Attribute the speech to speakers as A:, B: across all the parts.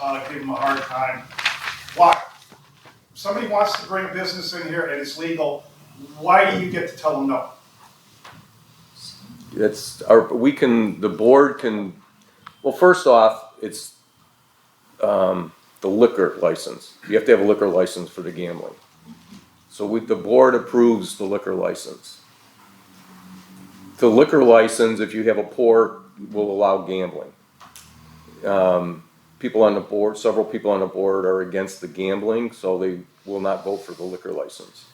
A: uh, give them a hard time. Why? Somebody wants to bring a business in here and it's legal, why do you get to tell them no?
B: That's our, we can, the board can, well, first off, it's, um, the liquor license. You have to have a liquor license for the gambling. So we, the board approves the liquor license. The liquor license, if you have a pour, will allow gambling. Um, people on the board, several people on the board are against the gambling, so they will not vote for the liquor license.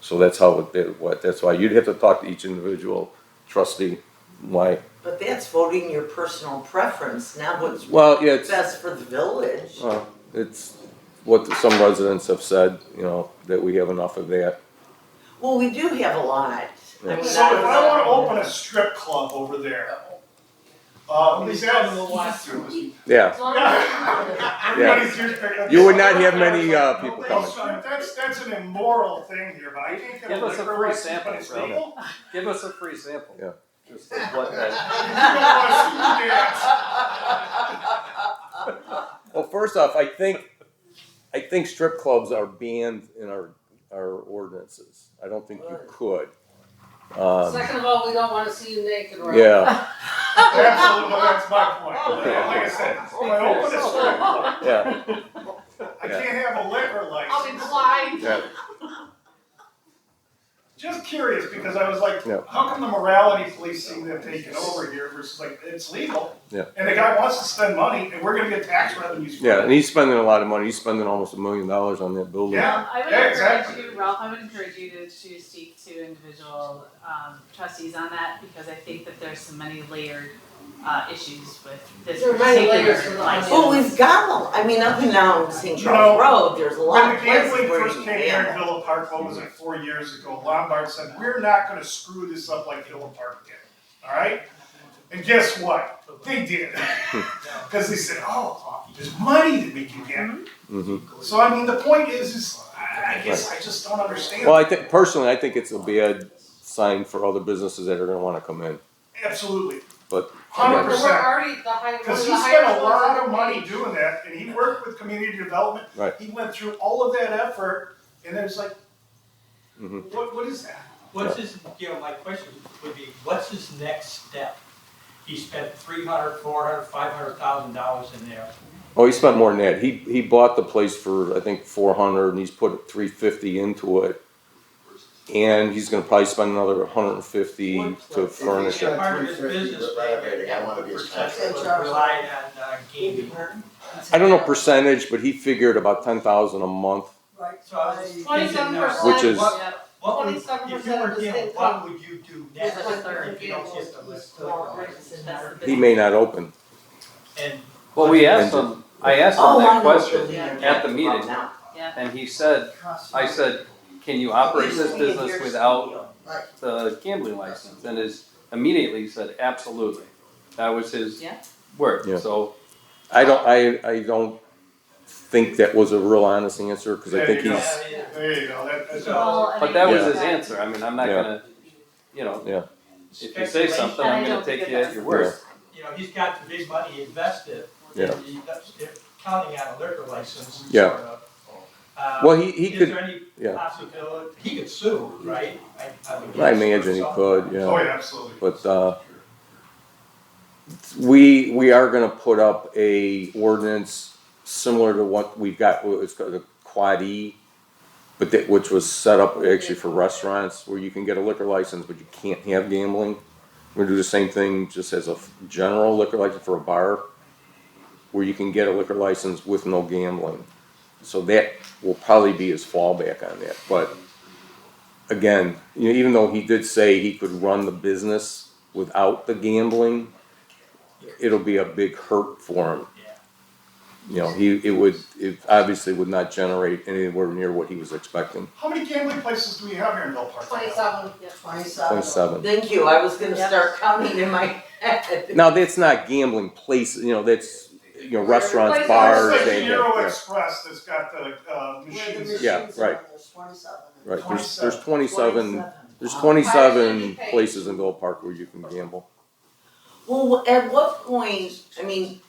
B: So that's how, it- that- what, that's why you'd have to talk to each individual trustee, why,
C: But that's voting your personal preference, not what's
B: well, yeah, it's,
C: best for the village.
B: uh, it's what some residents have said, you know, that we have enough of that.
C: Well, we do have a lot. I mean,
A: So if I wanna
C: don't know.
A: open a strip club over there, uh, is that?
B: Yeah,
A: Everybody's here picking up-
B: you would not have many, uh, people
A: Well,
B: coming.
A: so That's, that's an immoral thing here, but I think that
D: Give
A: a
D: us a
A: liquor
D: free
A: license,
D: sample,
A: but it's
D: bro.
A: legal?
D: Give us a free sample.
B: Yeah.
D: Just of what that,
A: You don't wanna see that.
B: Well, first off, I think, I think strip clubs are banned in our, our ordinances. I don't think you could. Um,
E: Second of all, we don't wanna see you naked, right?
B: yeah,
A: Absolutely, that's my point. Like I said, when I open a strip club,
B: yeah,
A: I can't have a liquor
E: I'll be
A: license.
E: blind.
B: yeah.
A: Just curious, because I was like,
B: Yeah.
A: how come the morality police seem to have taken over here versus like, it's legal?
B: Yeah.
A: And the guy wants to spend money and we're gonna get tax revenues for
B: Yeah, and
A: it.
B: he's spending a lot of money. He's spending almost a million dollars on that building.
A: Yeah.
F: I would
A: Yeah,
F: encourage
A: exactly.
F: you, Ralph, I would encourage you to, to speak to individual um, trustees on that because I think that there's some many layered uh, issues with this
E: There are many layers to
F: particular
E: the
F: license.
E: onion.
C: Well, we've got, a- I mean, up and down St.
A: You
C: Charles
A: know,
C: Road, there's a
A: When
C: lot
A: the
C: of places
A: gambling
C: where you
A: first came here in
C: can.
A: Villa Park, what was it, four years ago, Lombard said, we're not gonna screw this up like Villa Park did, alright? And guess what? They did. Cause they said, oh, there's money that we can
C: Mm-hmm.
A: get.
B: Mhm.
A: So I mean, the point is, is I I guess I just don't understand.
B: Well, I think, personally, I think it's a bad sign for other businesses that are gonna wanna come in,
A: Absolutely,
B: but.
A: hundred
E: We're
A: percent.
E: already the high, one of the
A: Because he
E: highest
A: spent a
E: ones
A: lot
E: in
A: of
E: the
A: money
E: league.
A: doing that, and he worked with community development.
B: Right.
A: He went through all of that effort, and then it's like,
B: Mhm.
A: what, what is that?
G: What's his, you know, my question would be, what's his next step? He spent three hundred, four hundred, five hundred thousand dollars in there.
B: Oh, he spent more than that. He, he bought the place for, I think, four hundred and he's put three fifty into it. And he's gonna probably spend another hundred and fifty
C: One
B: to
C: place.
B: furnish it.
G: Part of his business plan,
C: I
G: that
C: wanna
G: one
C: be a
G: percent was
C: tax-
G: relied on uh,
C: Oh,
G: gaming.
B: I don't know percentage, but he figured about ten thousand a month.
G: Right. So I was just thinking,
E: Twenty-seven
G: now,
E: percent.
B: Which is-
G: what- what would,
E: Twenty-seven
G: if you
E: percent
G: were
E: of the
G: him,
E: state.
G: what would you do next
E: It's like third.
G: if you don't get the list?
B: He may not open.
G: And
D: well, we asked him, I asked him
C: Oh, I
D: that
C: know what
D: question,
C: you're
F: at
C: talking
D: the
C: about
D: meeting.
C: now.
D: and he said, I said, can you operate this business without the gambling license? And his, immediately he said, absolutely. That was his
F: Yeah.
B: Yeah.
D: word, so
B: I don't, I, I don't think that was a real honest answer, cause I think
G: yeah,
B: he's,
G: I mean,
A: There you go, that, that's.
G: So- Well,
D: But that was
B: Yeah.
D: his answer, I mean, I'm not
B: Yeah.
D: gonna, you know, if you say
G: speculation.
D: something, I'm gonna take you at your word.
G: you know, he's got the big money invested.
B: Yeah.
G: He- that's- they're Counting on a liquor license,
B: Yeah.
G: sort of. Uh,
B: well, he, he
G: Is
B: could,
G: there any
B: yeah.
G: possibility, he could sue, right? I- I would
B: I
G: guess, or
B: imagine he
G: something.
B: could, yeah.
A: Oh, yeah, absolutely.
B: But, uh, we, we are gonna put up a ordinance similar to what we've got, what it's called the Quad E, but that, which was set up actually for restaurants, where you can get a liquor license, but you can't have gambling. We're gonna do the same thing, just as a f- general liquor license for a bar, where you can get a liquor license with no gambling. So that will probably be his fallback on that, but again, you know, even though he did say he could run the business without the gambling, it'll be a big hurt for him.
G: Yeah.
B: You know, he, it would, it obviously would not generate anywhere near what he was expecting,
A: How many gambling places do we have here in Bell Park?
E: Twenty-seven, yeah.
C: Twenty-seven.
B: point seven.
C: Thank you, I was gonna
E: Yep.
C: start counting in my head.
B: Now, that's not gambling places, you know, that's, you know, restaurants,
E: Places
B: bars,
A: It's like
B: they,
A: Euro
B: yeah,
A: Express that's got the uh, machines.
B: Yeah, right. right, there's, there's twenty-seven, there's twenty-seven places in Gold Park where you can gamble.
C: Well, at what point, I mean,